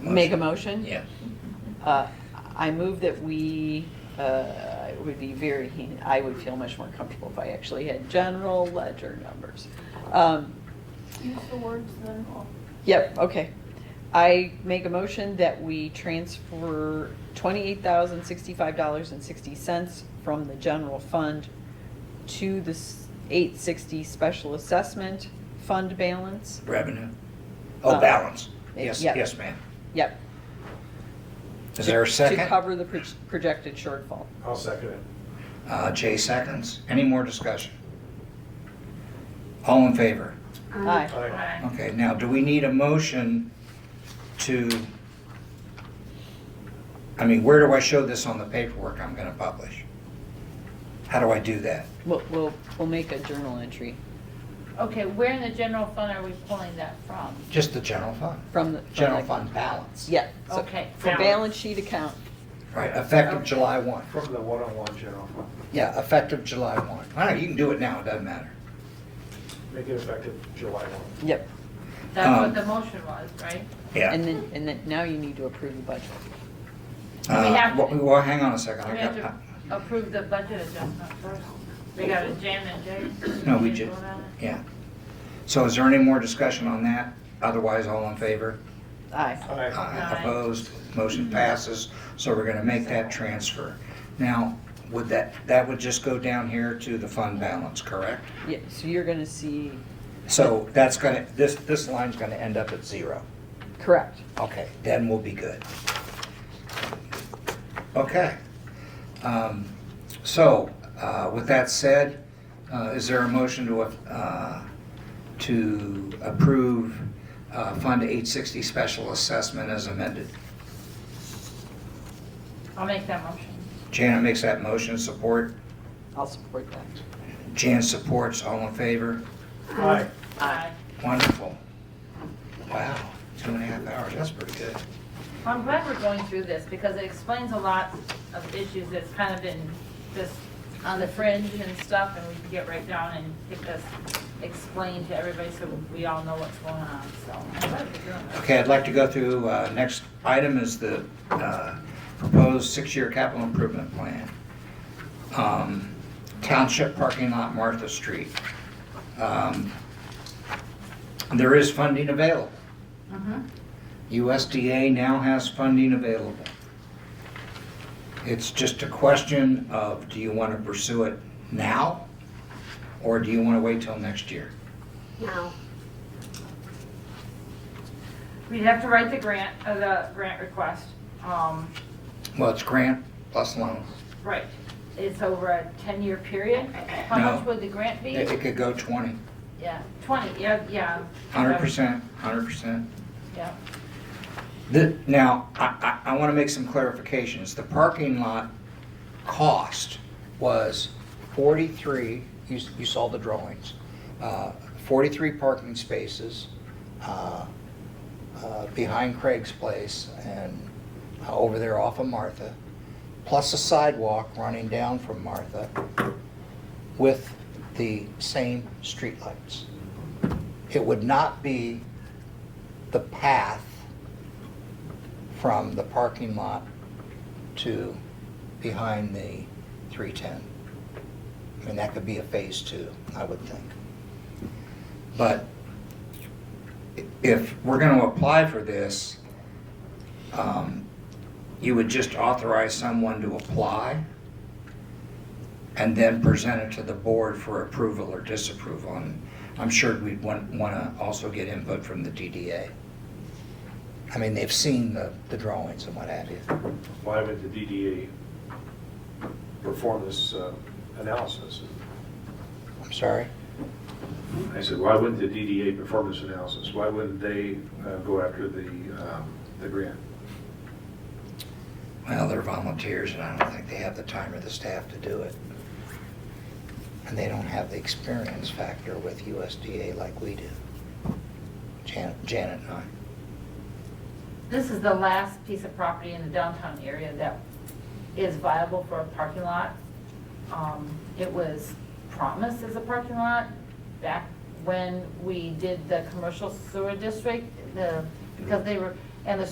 Make a motion? Yes. Uh, I move that we, uh, it would be very, I would feel much more comfortable if I actually had general ledger numbers. Um, Use the words then all. Yep, okay. I make a motion that we transfer twenty-eight thousand sixty-five dollars and sixty cents from the general fund to the eight sixty special assessment fund balance. Revenue. Uh, Oh, balance. Yes, yeah. yes, ma'am. Yep. Is there a to- To second? cover the proj- projected shortfall. I'll second it. Uh, Jay seconds. Any more discussion? All in favor? Aye. Aye. Okay, now, do we need a motion to, I mean, where do I show this on the paperwork I'm gonna publish? How do I do that? We'll, we'll, we'll make a journal entry Okay, where in the general fund are we pulling that from? Just the general fund, from the. from general the- fund balance. Yeah. so Okay. For balance sheet account. Right, effective July one. From the one-on-one general fund, Yeah, effective July one. I don't know, you can do it now, it doesn't matter. make it effective July one. Yep. That's Um, what the motion was, right? Yeah. And then, and then now you need to approve the budget. And we Uh, have to- Well, well, hang on a second. We I have got, to approve the budget adjustment first. We got a Jan and Jay. No, we Did you ju- vote on it? yeah. So is there any more discussion on that? Otherwise, all in favor? Aye. Aye. Aye. Aye. Opposed? Motion passes. So we're gonna make that transfer. Now, would that, that would just go down here to the fund balance, correct? Yeah, so you're gonna see, So that's gonna, this, this line's gonna end up at zero. correct. Okay, then we'll be good. Okay. Um, So, uh, with that said, uh, is there a motion to, uh, to approve uh, Fund 860 Special Assessment as amended? I'll make that motion. Janet makes that motion, support. I'll support that. Jan supports, all in favor? Aye. Aye. Wonderful. Wow, two and a half hours, that's pretty good. I'm glad we're going through this because it explains a lot of issues that's kind of been just on the fringe and stuff and we can get right down and get this explained to everybody so we all know what's going on, so. I'm glad we're doing this. Okay, I'd like to go through, uh, next item is the uh, proposed six-year capital improvement plan. Um, Township parking lot Martha Street. Um, There is funding available. Mm-hmm. Mhm. USDA now has funding available. It's just a question of, do you want to pursue it now? Or do you want to wait till next year? No, We'd have to write the grant, uh, the grant request. Um, Well, it's grant plus loan. right, it's over a ten-year period. How No. much would the grant be? It it could go 20. Yeah, twenty, yeah, yeah. Hundred percent, hundred percent. Yeah, The, now, I, I, I wanna make some clarifications. The parking lot cost was forty-three, you, s- you saw the drawings. Uh, Forty-three parking spaces, uh, uh, behind Craig's place and uh, over there off of Martha, plus a sidewalk running down from Martha with the same streetlights. It would not be the path from the parking lot to behind the 310. I mean, that could be a phase two, I would think. But i- if we're going to apply for this, um, you would just authorize someone to apply and then present it to the board for approval or disapproval. And I'm sure we'd want, want to also get input from the DDA. I mean, they've seen the, the drawings and what have you. Why would the DDA perform this uh, analysis? I'm sorry? I said, why wouldn't the DDA perform this analysis? Why wouldn't they uh, go after the, um, the grant? Well, they're volunteers and I don't think they have the time or the staff to do it. And they don't have the experience factor with USDA like we do. Janet, Janet and I. this is the last piece of property in the downtown area that is viable for a parking lot. Um, It was promised as a parking lot back when we did the commercial sewer district, the, because they were, and the